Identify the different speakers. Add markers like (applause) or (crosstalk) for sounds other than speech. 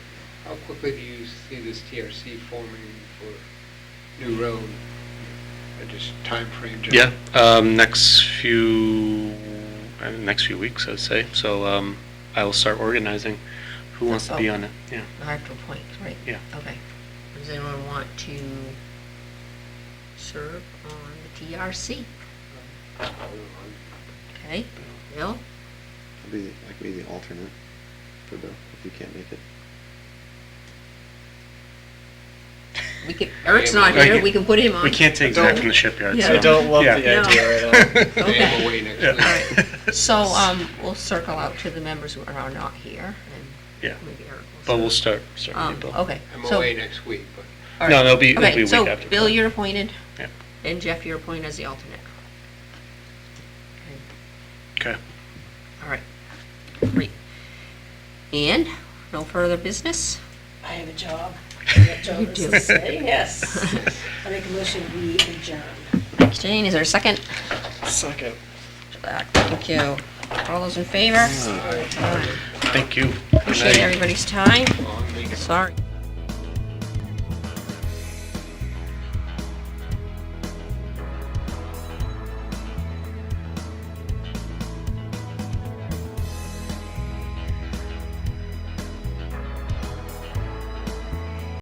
Speaker 1: How quickly do you see this TRC forming for new road? Uh, Just timeframe? John?
Speaker 2: Yeah, um, next few, uh, next few weeks, I'd say. So, um, I will start organizing. Who wants to be on it? Yeah.
Speaker 3: The Hartford Point, right?
Speaker 2: Yeah.
Speaker 3: Okay. Does anyone want to serve on the TRC? Okay, Bill?
Speaker 4: I'll be, I can be the alternate for Bill, if you can't make it.
Speaker 3: We could, Eric's not here, we can put him on.
Speaker 2: We can't take Zach from the shipyard, so.
Speaker 3: Yeah. Don't
Speaker 5: love the
Speaker 2: yeah.
Speaker 5: idea
Speaker 2: (laughs)
Speaker 3: right
Speaker 1: They have a way next
Speaker 2: Yeah.
Speaker 1: week.
Speaker 3: All right, so, um, we'll circle out to the members who are not here,
Speaker 2: Yeah,
Speaker 3: and maybe Eric will.
Speaker 2: but we'll
Speaker 3: serve.
Speaker 2: start, start
Speaker 3: Um,
Speaker 2: with you, Bill.
Speaker 3: okay,
Speaker 1: I'm
Speaker 3: so.
Speaker 1: away next week, but
Speaker 3: all
Speaker 2: No,
Speaker 3: right.
Speaker 2: that'll be- it'll
Speaker 3: Okay,
Speaker 2: be a week
Speaker 3: So,
Speaker 2: after.
Speaker 3: Bill, you're appointed,
Speaker 2: Yeah.
Speaker 3: and Jeff, you're appointed as the alternate. Okay.
Speaker 2: Okay.
Speaker 3: All right, great. And, no further
Speaker 2: (laughs)
Speaker 3: business?
Speaker 6: I have
Speaker 3: (laughs)
Speaker 6: a job. That
Speaker 3: You
Speaker 6: job is
Speaker 3: do.
Speaker 6: to say
Speaker 3: (laughs)
Speaker 6: yes. I make a motion, we adjourn.
Speaker 3: Jane, is there a second?
Speaker 5: Second.
Speaker 3: Back, Thank you. All those in favor?
Speaker 2: Thank you. Good
Speaker 3: Appreciate
Speaker 2: night.
Speaker 3: everybody's time.
Speaker 1: I'll make a
Speaker 3: Sorry.